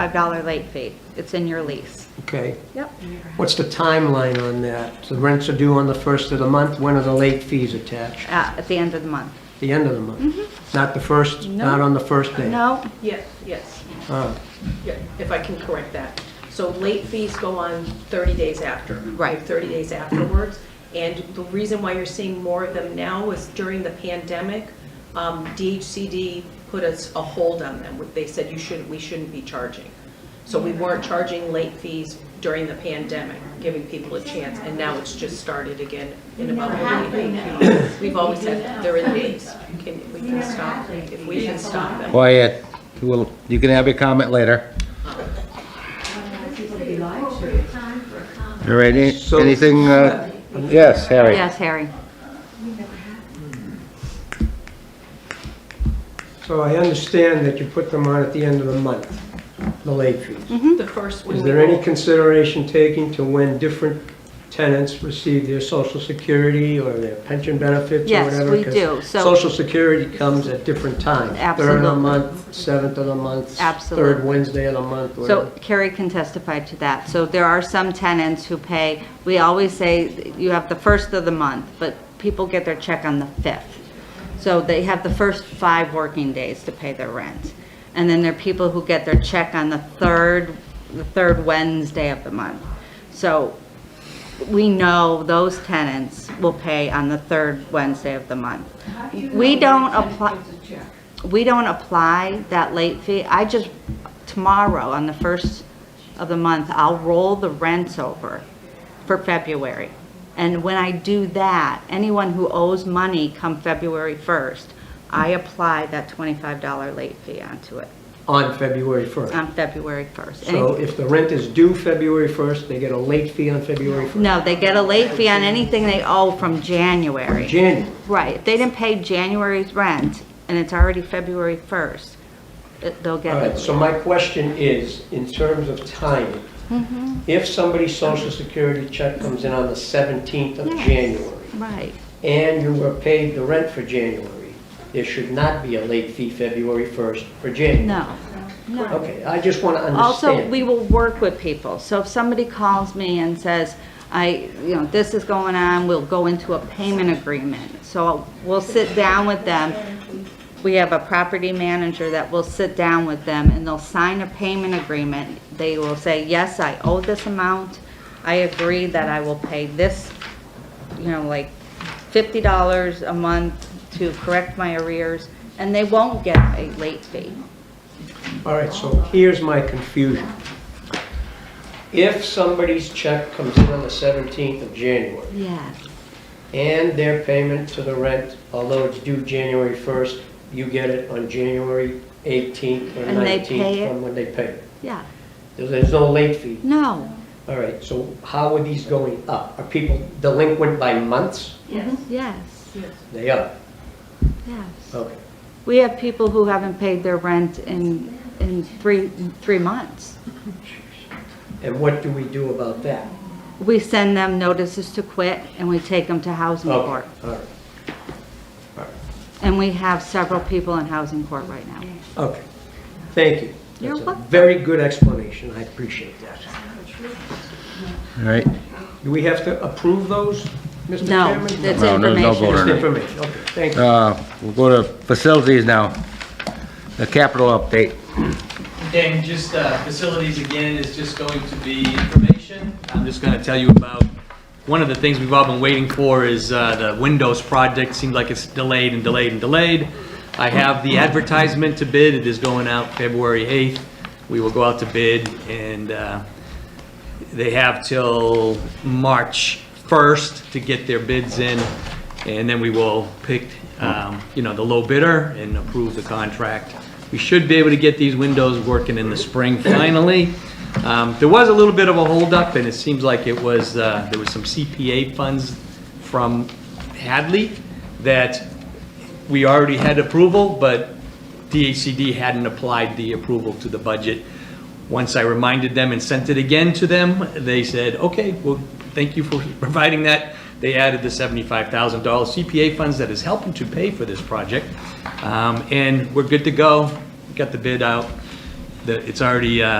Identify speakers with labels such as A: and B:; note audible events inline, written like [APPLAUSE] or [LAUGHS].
A: $5 late fee. It's in your lease. Uh,
B: Okay.
A: Yep.
B: What's the timeline on that? The rents are due on the first of the month. When are the late fees attached?
A: At at the end of the month.
B: The end of the month? Not the first, not on the first day?
A: Mm-hmm. No?
C: Yes, yes,
B: Oh,
C: yeah, if I can correct that. So late fees go on 30 days after.
A: Right.
C: 30 days afterwards. And the reason why you're seeing more of them now is during the pandemic, um, DHCD put us a hold on them. They said you shouldn't, we shouldn't be charging. So we weren't charging late fees during the pandemic, giving people a chance, and now it's just started again in about a week. We've always said, they're in fees. Can, we can stop, if we can stop them.
D: Quiet, well, you can have your comment later. All right, any-
B: So-
D: anything, uh, yes, Harry?
A: Yes, Harry.
B: so I understand that you put them on at the end of the month, the late fees.
A: Mm-hmm.
C: The first one.
B: Is
C: we
B: there any
C: will-
B: consideration taken to when different tenants receive their social security or their pension benefits or
A: Yes,
B: whatever?
A: we
B: 'Cause
A: do. So-
B: Social security comes at different times. Third of the
A: Absolutely.
B: month, seventh of the month. Third
A: Absolutely.
B: Wednesday of the month, whatever.
A: So Carrie can testify to that. So there are some tenants who pay, we always say you have the first of the month, but people get their check on the 5th. So they have the first five working days to pay their rent. And then there are people who get their check on the third, the third Wednesday of the month. So we know those tenants will pay on the third Wednesday of the month. We don't apply, we don't apply that late fee. I just, tomorrow, on the first of the month, I'll roll the rents over for February. And when I do that, anyone who owes money come February 1st, I apply that $25 late fee onto it
B: on February 1st.
A: on February 1st.
B: So
A: Any-
B: if the rent is due February 1st, they get a late fee on February 1st?
A: No, they get a late fee on anything they owe from January.
B: January,
A: Right, if they didn't pay January's rent, and it's already February 1st, it- they'll
B: all
A: get
B: right,
A: it.
B: so my question is, in terms of timing,
A: Mm-hmm.
B: if somebody's social security check comes in on the 17th of
A: Yes.
B: January,
A: Right,
B: and you were paid the rent for January, there should not be a late fee February 1st for January?
A: no, no.
B: Okay, I just want to
A: Also,
B: understand.
A: we will work with people. So if somebody calls me and says, I, you know, this is going on, we'll go into a payment agreement. So we'll sit down with them. We have a property manager that will sit down with them and they'll sign a payment agreement. They will say, yes, I owe this amount. I agree that I will pay this, you know, like fifty dollars a month to correct my arrears. And they won't get a late fee.
B: All right, so here's my confusion. If somebody's check comes in on the 17th of January,
A: Yes.
B: and their payment to the rent, although it's due January 1st, you get it on January 18th or
A: And they pay
B: 19th
A: it?
B: from when they pay. it.
A: Yeah,
B: There's there's no late fee.
A: no,
B: All right, so how are these going up? Are people delinquent by months?
A: Yes,
B: They are,
A: yes.
B: okay.
A: We have people who haven't paid their rent in, in three, three months.
B: And what do we do about that?
A: We send them notices to quit and we take them to housing
B: Okay,
A: court.
B: All right,
A: And we have several people in housing court right now.
B: okay, thank you.
A: You're
B: That's a
A: welcome.
B: Very good explanation, I appreciate that.
D: All right,
B: Do we have to approve those, Mr.
A: No,
B: Chairman?
A: it's
D: No, there's no
A: information.
D: vote on
B: Just
D: it.
B: information, okay, thank you.
D: uh, we'll go to facilities now. The capital update.
E: And just uh, facilities again is just going to be information. I'm just going to tell you about, one of the things we've all been waiting for is uh, the Windows project. Seems like it's delayed and delayed and delayed. I have the advertisement to bid. It is going out February 8th. We will go out to bid and uh, they have till March 1st to get their bids in. And then we will pick, um, you know, the low bidder and approve the contract. We should be able to get these windows working in the spring finally. Um, There was a little bit of a holdup, and it seems like it was, uh, there was some CPA funds from Hadley that we already had approval, but DHCD hadn't applied the approval to the budget. Once I reminded them and sent it again to them, they said, okay, well, thank you for [LAUGHS] providing that. They added the $75,000 CPA funds that is helping to pay for this project. Um, And we're good to go. Got the bid out. The- It's already, uh,